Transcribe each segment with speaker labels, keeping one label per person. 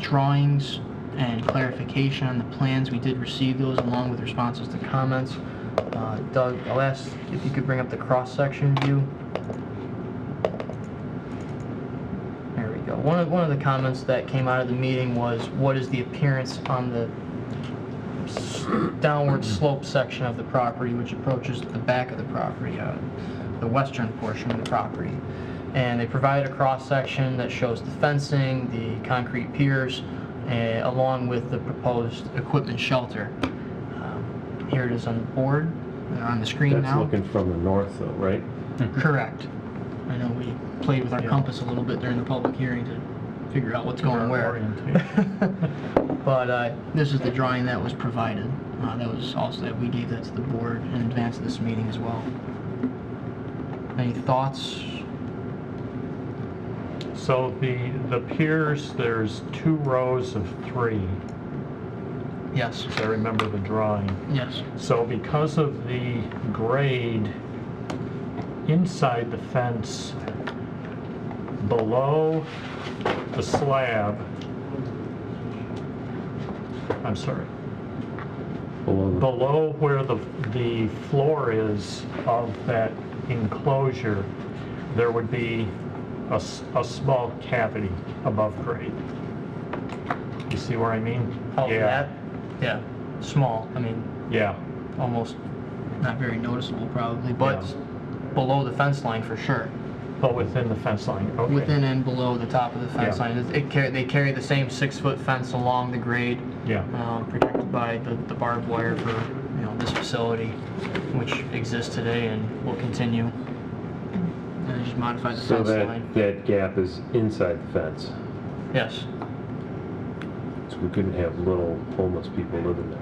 Speaker 1: drawings and clarification on the plans. We did receive those along with responses to comments. Uh, Doug, I'll ask if you could bring up the cross-section view. There we go. One of, one of the comments that came out of the meeting was, what is the appearance on the s- downward slope section of the property, which approaches the back of the property, uh, the western portion of the property? And they provided a cross-section that shows the fencing, the concrete piers, eh, along with the proposed equipment shelter. Um, Here it is on the board, uh, on the screen
Speaker 2: That's
Speaker 1: now.
Speaker 2: looking from the north though, right?
Speaker 1: Correct. I know we played with our compass a little bit during the public hearing to figure out what's going where. But uh, this is the drawing that was provided. Uh, That was also, that we gave that to the board in advance of this meeting as well. Any thoughts?
Speaker 3: So the, the piers, there's two rows of three,
Speaker 1: Yes,
Speaker 3: if I remember the drawing.
Speaker 1: yes.
Speaker 3: So because of the grade inside the fence, below the slab, I'm sorry,
Speaker 2: Below
Speaker 3: below where the, the floor is of that enclosure, there would be a, s- a small cavity above grade. You see where I mean?
Speaker 1: Oh,
Speaker 3: Yeah.
Speaker 1: Yeah, small, I mean,
Speaker 3: Yeah,
Speaker 1: almost not very noticeable probably, but below the fence line for sure.
Speaker 3: but within the fence line, okay.
Speaker 1: Within and below the top of the fence
Speaker 3: Yeah.
Speaker 1: line. It- It carry, they carry the same six-foot fence along the grade.
Speaker 3: Yeah.
Speaker 1: um, protected by the the barbed wire for, you know, this facility, which exists today and will continue. And just modify
Speaker 2: the,
Speaker 1: the
Speaker 2: so
Speaker 1: fence
Speaker 2: that,
Speaker 1: line.
Speaker 2: that gap is inside the fence,
Speaker 1: Yes,
Speaker 2: so we couldn't have little homeless people living there.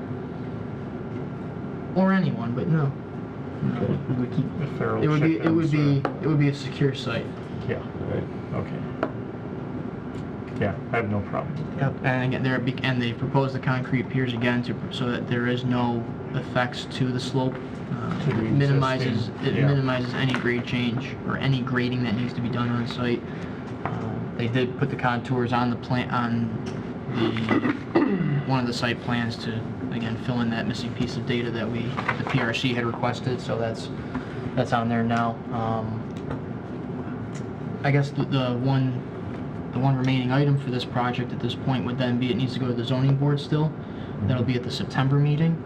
Speaker 1: or anyone, but no. No,
Speaker 2: Okay.
Speaker 1: we would keep-
Speaker 3: If they're
Speaker 1: It would be, it would be,
Speaker 3: chickens
Speaker 1: it would be a secure site.
Speaker 3: or- Yeah,
Speaker 2: All right.
Speaker 3: okay. Yeah, I have no problem.
Speaker 1: Yep. And again, there, be- and they propose the concrete piers again to, so that there is no effects to the slope. Uh,
Speaker 3: To the
Speaker 1: It minimizes,
Speaker 3: existing,
Speaker 1: it
Speaker 3: yeah.
Speaker 1: minimizes any grade change or any grading that needs to be done on site. Um, They did put the contours on the plant, on the, one of the site plans to, again, fill in that missing piece of data that we, the PRC had requested, so that's, that's on there now. Um, I guess the, the one, the one remaining item for this project at this point would then be, it needs to go to the zoning board still. That'll be at the September meeting.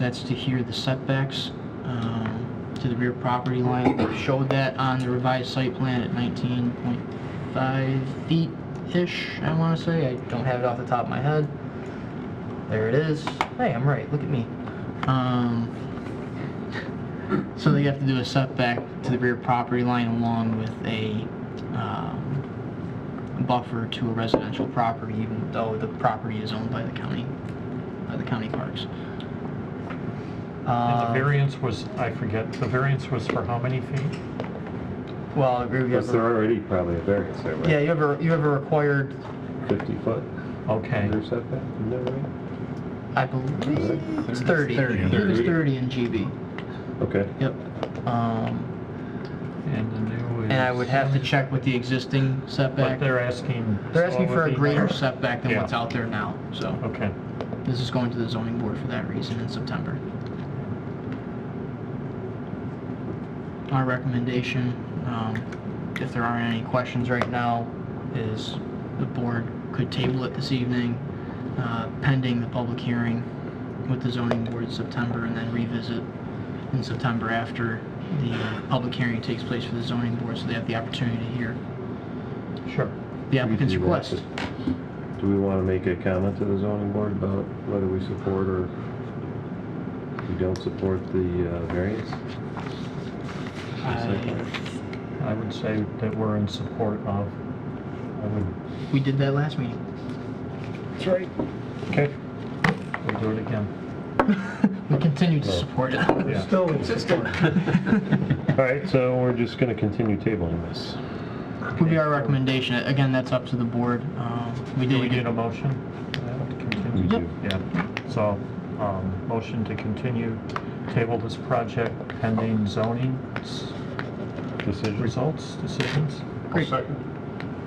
Speaker 1: That's to hear the setbacks, um, to the rear property line. They showed that on the revised site plan at nineteen point five feet-ish, I wanna say. I don't have it off the top of my head. There it is. Hey, I'm right, look at me. Um, so they have to do a setback to the rear property line along with a um, buffer to a residential property, even though the property is owned by the county, by the county parks.
Speaker 3: And the
Speaker 1: Uh,
Speaker 3: variance was, I forget, the variance was for how many feet?
Speaker 1: Well, I agree with you.
Speaker 2: Plus, there already probably a variance there,
Speaker 1: Yeah,
Speaker 2: right?
Speaker 1: you have a, you have a required,
Speaker 2: 50 foot
Speaker 3: Okay,
Speaker 2: under setback, isn't that right?
Speaker 1: I believe, it's 30.
Speaker 3: Thirty.
Speaker 1: I believe it's 30
Speaker 2: Thirty.
Speaker 1: in GB.
Speaker 2: Okay.
Speaker 1: Yep. Um,
Speaker 3: and the new is...
Speaker 1: And I would have to check with the existing
Speaker 3: But
Speaker 1: setback.
Speaker 3: they're asking...
Speaker 1: They're asking
Speaker 3: so it
Speaker 1: for
Speaker 3: would
Speaker 1: a
Speaker 3: be-
Speaker 1: greater setback than
Speaker 3: Yeah.
Speaker 1: what's out there now, so.
Speaker 3: Okay,
Speaker 1: This is going to the zoning board for that reason in September. Our recommendation, um, if there aren't any questions right now, is the board could table it this evening, uh, pending the public hearing with the zoning board in September, and then revisit in September after the uh, public hearing takes place for the zoning board, so they have the opportunity to hear
Speaker 3: sure.
Speaker 1: the applicant's
Speaker 2: Do we want to-
Speaker 1: request.
Speaker 2: Do we want to make a comment to the zoning board about whether we support or we don't support the uh, variance?
Speaker 1: I-
Speaker 3: I would say that we're in support of, I would...
Speaker 1: We did that last meeting.
Speaker 3: That's right. Okay, we'll do it again.
Speaker 1: We continue to support it.
Speaker 3: Yeah.
Speaker 4: Still insistent.
Speaker 2: All right, so we're just going to continue tabling this.
Speaker 1: Would be our recommendation. Again, that's up to the board. Um, We
Speaker 3: Do
Speaker 1: did
Speaker 3: we
Speaker 1: get,
Speaker 3: get a motion? Continue?
Speaker 2: We
Speaker 1: Yep.
Speaker 2: do.
Speaker 3: Yeah, so, um, motion to continue, table this project pending zoning s-
Speaker 2: Decision?
Speaker 3: results, decisions?
Speaker 1: Great.
Speaker 4: Second.